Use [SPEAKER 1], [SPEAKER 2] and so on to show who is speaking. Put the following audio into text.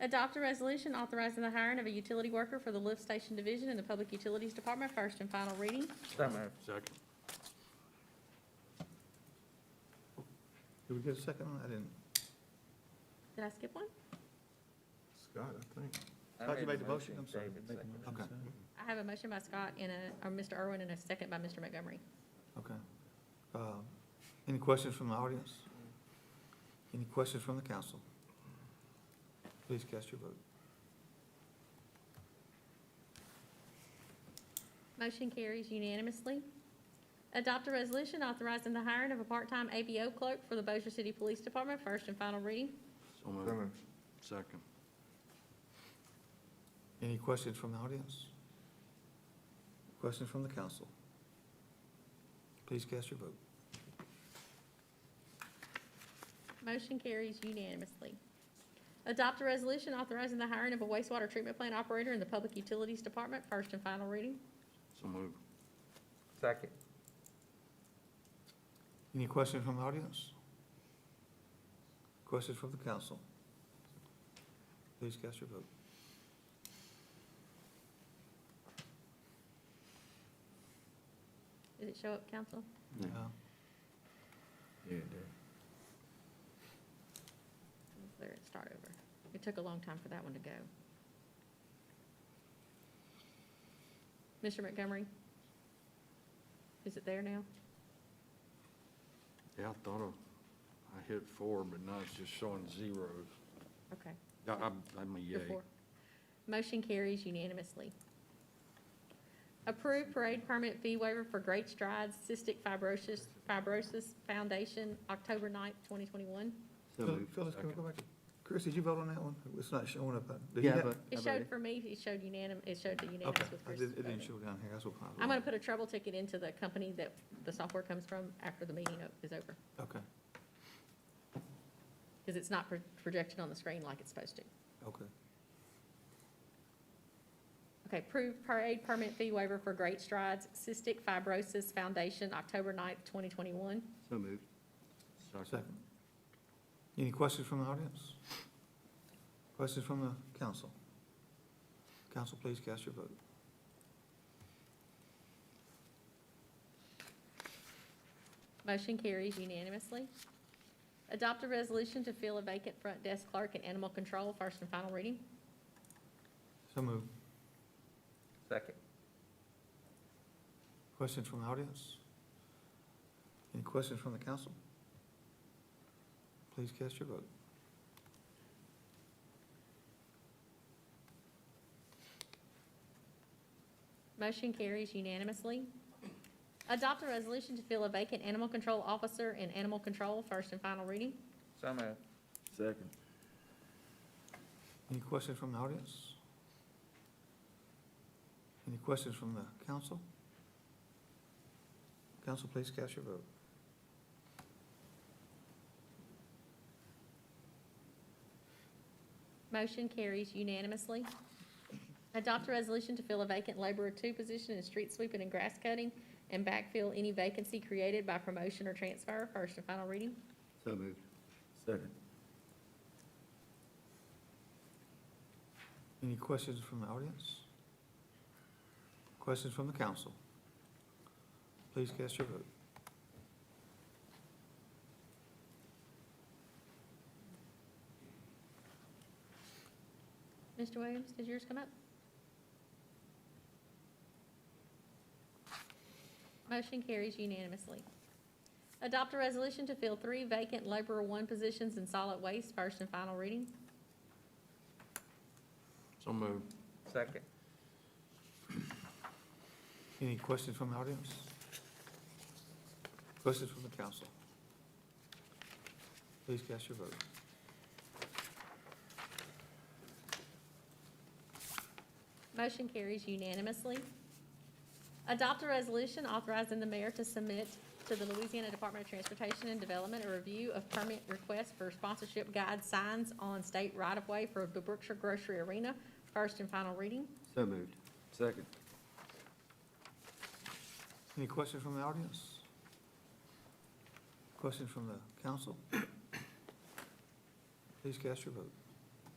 [SPEAKER 1] adopt a resolution authorizing the hiring of a utility worker for the lift station division in the Public Utilities Department, first and final reading.
[SPEAKER 2] So moved.
[SPEAKER 3] Second.
[SPEAKER 2] Did we get a second one? I didn't.
[SPEAKER 1] Did I skip one?
[SPEAKER 3] Scott, I think.
[SPEAKER 2] How'd you make the motion? I'm sorry. Make the motion.
[SPEAKER 3] Okay,
[SPEAKER 1] I have a motion by Scott and a, or Mr. Irwin and a second by Mr. Montgomery.
[SPEAKER 2] Okay. Um, Any questions from the audience? Any questions from the council? Please cast your vote.
[SPEAKER 1] Motion carries unanimously. Adopt a resolution authorizing the hiring of a part-time ABO clerk for the Bossier City Police Department, first and final reading.
[SPEAKER 3] so moved. Second.
[SPEAKER 2] Any questions from the audience? Questions from the council? Please cast your vote.
[SPEAKER 1] Motion carries unanimously. Adopt a resolution authorizing the hiring of a wastewater treatment plant operator in the Public Utilities Department, first and final reading.
[SPEAKER 3] So moved.
[SPEAKER 4] Second.
[SPEAKER 2] Any questions from the audience? Questions from the council? Please cast your vote.
[SPEAKER 1] Did it show up, council?
[SPEAKER 2] Uh,
[SPEAKER 3] Yeah.
[SPEAKER 1] Clear it, start over. It took a long time for that one to go. Mr. Montgomery? Is it there now?
[SPEAKER 3] Yeah, I thought of, I hit four, but now it's just showing zeros.
[SPEAKER 1] Okay.
[SPEAKER 3] I, I'm, I'm a yay.
[SPEAKER 1] You're for. Motion carries unanimously. Approved parade permit fee waiver for Great Strides Cystic Fibrosis, Fibrosis Foundation, October 9th, 2021.
[SPEAKER 3] So
[SPEAKER 2] Phil-
[SPEAKER 3] moved.
[SPEAKER 2] Phyllis, can we
[SPEAKER 3] Second.
[SPEAKER 2] go back? to- Chris, did you vote on that one? It's not showing up. uh, did you
[SPEAKER 4] Yeah,
[SPEAKER 2] have-
[SPEAKER 4] but.
[SPEAKER 1] It showed for me, it showed unanimous, it showed the
[SPEAKER 2] Okay,
[SPEAKER 1] unanimous with
[SPEAKER 2] I
[SPEAKER 1] Chris.
[SPEAKER 2] did- it didn't show down here, that's what.
[SPEAKER 1] I'm going to put a trouble ticket into the company that the software comes from after the meeting o- is over,
[SPEAKER 2] Okay,
[SPEAKER 1] because it's not pro- projected on the screen like it's supposed to.
[SPEAKER 2] okay.
[SPEAKER 1] Okay, approved parade permit fee waiver for Great Strides Cystic Fibrosis Foundation, October 9th, 2021.
[SPEAKER 4] So moved.
[SPEAKER 3] Second.
[SPEAKER 2] Second. Any questions from the audience? Questions from the council? Council, please cast your vote.
[SPEAKER 1] Motion carries unanimously. Adopt a resolution to fill a vacant front desk clerk in animal control, first and final reading.
[SPEAKER 2] So moved.
[SPEAKER 4] Second.
[SPEAKER 2] Questions from the audience? Any questions from the council? Please cast your vote.
[SPEAKER 1] Motion carries unanimously. Adopt a resolution to fill a vacant animal control officer in animal control, first and final reading.
[SPEAKER 4] So moved.
[SPEAKER 3] Second.
[SPEAKER 2] Any questions from the audience? Any questions from the council? Council, please cast your vote.
[SPEAKER 1] Motion carries unanimously. Adopt a resolution to fill a vacant laborer two position in street sweeping and grass cutting and backfill any vacancy created by promotion or transfer, first and final reading.
[SPEAKER 4] So moved.
[SPEAKER 3] Second.
[SPEAKER 2] Any questions from the audience? Questions from the council? Please cast your vote.
[SPEAKER 1] Mr. Williams, did yours come up? Motion carries unanimously. Adopt a resolution to fill three vacant laborer one positions in solid waste, first and final reading.
[SPEAKER 3] So moved.
[SPEAKER 4] Second.
[SPEAKER 2] Any questions from the audience? Questions from the council? Please cast your vote.
[SPEAKER 1] Motion carries unanimously. Adopt a resolution authorizing the mayor to submit to the Louisiana Department of Transportation and Development a review of permit requests for sponsorship guide signs on state right-of-way for the Brookshire Grocery Arena, first and final reading.
[SPEAKER 4] So moved.
[SPEAKER 3] Second.
[SPEAKER 2] Any questions from the audience? Questions from the council? Please cast your vote.